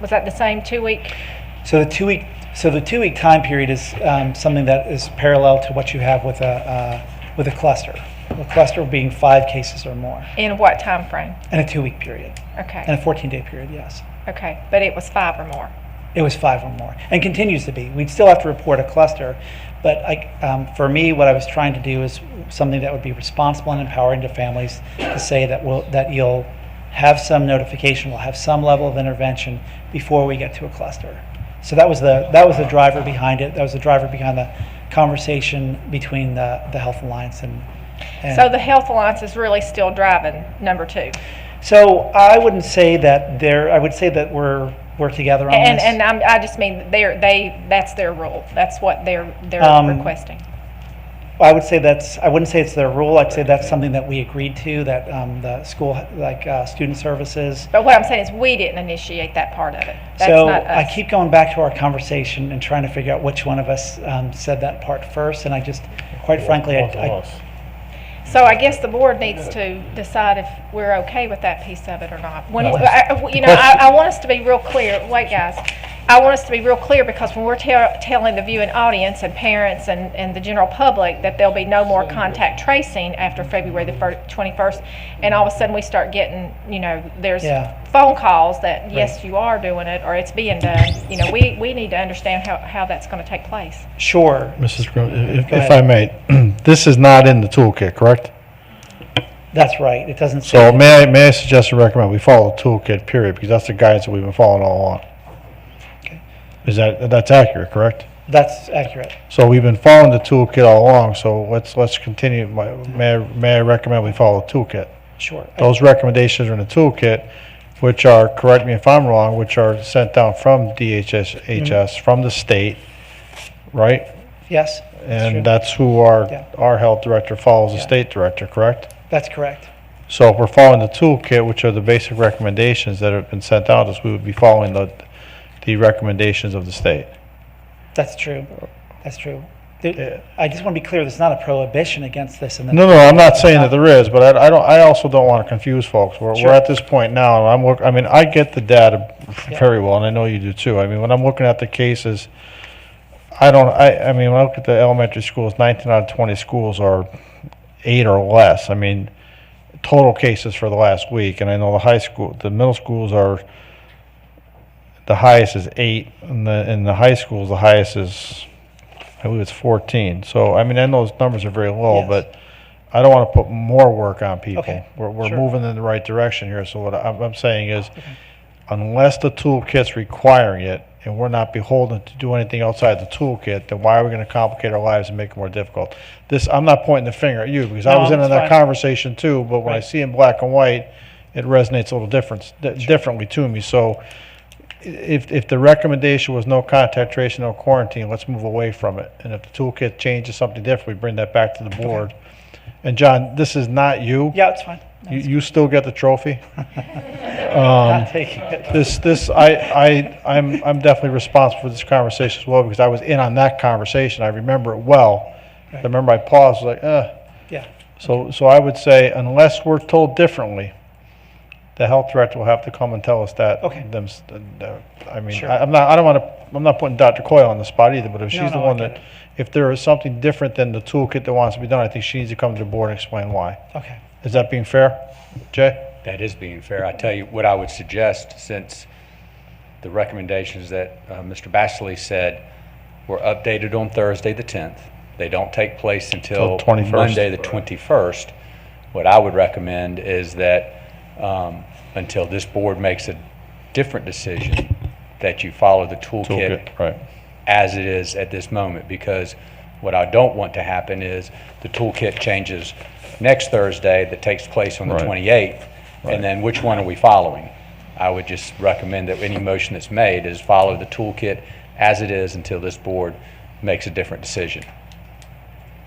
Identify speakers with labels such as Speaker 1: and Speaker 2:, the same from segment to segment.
Speaker 1: Was that the same two-week?
Speaker 2: So the two-week, so the two-week time period is um, something that is parallel to what you have with a, uh, with a cluster. A cluster being five cases or more,
Speaker 1: In what time frame?
Speaker 2: and a two-week period, and
Speaker 1: Okay,
Speaker 2: a 14-day period, yes.
Speaker 1: okay, but it was five or more.
Speaker 2: It was five or more, and continues to be. We'd still have to report a cluster, but I, um, for me, what I was trying to do is something that would be responsible and empowering to families to say that we'll, that you'll have some notification, we'll have some level of intervention before we get to a cluster. So that was the that was the driver behind it. That was the driver behind the conversation between the, the Health Alliance and. and
Speaker 1: So the Health Alliance is really still driving number two.
Speaker 2: so I wouldn't say that there. I would say that we're we're together on
Speaker 1: And,
Speaker 2: this.
Speaker 1: and I'm, I just mean, they're, they, that's their rule. That's what they're,
Speaker 2: Um,
Speaker 1: they're requesting.
Speaker 2: I would say that's, I wouldn't say it's their rule, I'd say that's something that we agreed to, that um, the school, like uh, student services.
Speaker 1: But what I'm saying is, we didn't initiate that part of it. That's
Speaker 2: So
Speaker 1: not
Speaker 2: I
Speaker 1: us.
Speaker 2: keep going back to our conversation and trying to figure out which one of us um, said that part first, and I just, quite frankly, I- I,
Speaker 1: So I guess the board needs to decide if we're okay with that piece of it or not. When,
Speaker 2: No.
Speaker 1: I- I- you know, I, I want us to be real clear, wait guys, I want us to be real clear because when we're tell, telling the viewing audience and parents and, and the general public that there'll be no more contact tracing after February the fir- twenty-first, and all of a sudden we start getting, you know, there's
Speaker 2: Yeah.
Speaker 1: phone calls that, yes, you are doing it, or it's being done, you know, we, we need to understand how, how that's gonna take place.
Speaker 2: sure,
Speaker 3: Mrs. Grimm, if,
Speaker 2: Go
Speaker 3: if
Speaker 2: ahead.
Speaker 3: I may, this is not in the toolkit, correct?
Speaker 2: that's right, it doesn't
Speaker 3: So
Speaker 2: say,
Speaker 3: may I, may I suggest and recommend we follow the toolkit period, because that's the guidance that we've been following all along.
Speaker 2: Okay.
Speaker 3: Is that, that's accurate, correct?
Speaker 2: that's accurate.
Speaker 3: So we've been following the toolkit all along, so let's, let's continue, My- may, I- may I recommend we follow the toolkit?
Speaker 2: Sure. I-
Speaker 3: Those recommendations are in the toolkit, which are, correct me if I'm wrong, which are sent down from DHS, HS, from the state, right?
Speaker 2: Yes, that's true.
Speaker 3: And that's who our,
Speaker 2: Yeah.
Speaker 3: our health director follows the
Speaker 2: Yeah.
Speaker 3: state director, correct?
Speaker 2: that's correct.
Speaker 3: So if we're following the toolkit, which are the basic recommendations that have been sent out, is we would be following the, the recommendations of the state.
Speaker 2: That's true, that's true.
Speaker 3: Yeah.
Speaker 2: There- I just want to be clear, there's not a prohibition against this in the.
Speaker 3: No, no, I'm not saying that there is, but I, I don't, I also don't want to confuse folks. We're,
Speaker 2: Sure.
Speaker 3: we're at this point now, and I'm look, I mean, I get the data
Speaker 2: Yeah.
Speaker 3: very well, and I know you do too. I mean, when I'm looking at the cases, I don't, I, I mean, when I look at the elementary schools, nineteen out of twenty schools are eight or less. I mean, total cases for the last week, and I know the high school, the middle schools are, the highest is eight, and the, and the high schools, the highest is, I believe it's fourteen. So, I mean, I know those numbers are very low,
Speaker 2: Yes.
Speaker 3: but I don't want to put more work on people.
Speaker 2: Okay,
Speaker 3: We're, we're
Speaker 2: sure.
Speaker 3: moving in the right direction here, so what I'm, I'm saying is, unless the toolkit's requiring it, and we're not beholden to do anything outside the toolkit, then why are we gonna complicate our lives and make it more difficult? This, I'm not pointing the finger at you, because I
Speaker 2: No,
Speaker 3: was in on
Speaker 2: that's
Speaker 3: that
Speaker 2: fine.
Speaker 3: conversation too, but when I
Speaker 2: Right.
Speaker 3: see in black and white, it resonates a little different, differently to me, so i- if, if the recommendation was no contact tracing, no quarantine, let's move away from it, and if the toolkit changes something different, we bring that back to the board. And John, this is not you.
Speaker 2: Yeah, it's fine. No,
Speaker 3: You, you still get the trophy? Um,
Speaker 2: Not taking it.
Speaker 3: This, this, I, I, I'm, I'm definitely responsible for this conversation as well, because I was in on that conversation, I remember it well. I
Speaker 2: Right.
Speaker 3: remember I paused, like, uh,
Speaker 2: Yeah,
Speaker 3: so, so I would say, unless we're told differently, the health director will have to come and tell us that.
Speaker 2: Okay.
Speaker 3: Them, s- the- I mean,
Speaker 2: Sure.
Speaker 3: I- I'm not, I don't want to, I'm not putting Dr. Coyle on the spot either, but if
Speaker 2: No,
Speaker 3: she's the
Speaker 2: no, I
Speaker 3: one
Speaker 2: get
Speaker 3: that,
Speaker 2: it.
Speaker 3: if there is something different than the toolkit that wants to be done, I think she needs to come to the board and explain why.
Speaker 2: okay.
Speaker 3: Is that being fair, Jay?
Speaker 4: That is being fair. I tell you, what I would suggest, since the recommendations that uh, Mr. Bashley said were updated on Thursday, the 10th, they don't take place
Speaker 3: Till
Speaker 4: until
Speaker 3: 21st.
Speaker 4: Monday, the 21st, what I would recommend is that um, until this board makes a different decision, that you follow the toolkit
Speaker 3: Toolkit, Right.
Speaker 4: as it is at this moment, because what I don't want to happen is the toolkit changes next Thursday that takes place on the
Speaker 3: Right.
Speaker 4: 28th, and then which one are we following? I would just recommend that any motion that's made is follow the toolkit as it is until this board makes a different decision.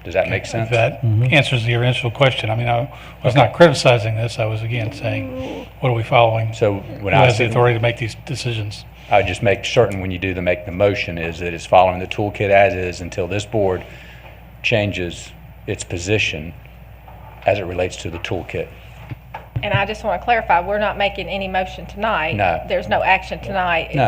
Speaker 4: Does that make sense?
Speaker 5: If that answers your initial question, I mean, I was not criticizing this, I was again saying, what are we following?
Speaker 4: So when
Speaker 5: Who
Speaker 4: I
Speaker 5: has
Speaker 4: see,
Speaker 5: the authority to make these decisions?
Speaker 4: I would just make certain when you do the make the motion is that it's following the toolkit as is until this board changes its position as it relates to the toolkit.
Speaker 1: And I just want to clarify, we're not making any motion tonight.
Speaker 4: No.
Speaker 1: There's no action tonight.
Speaker 4: No.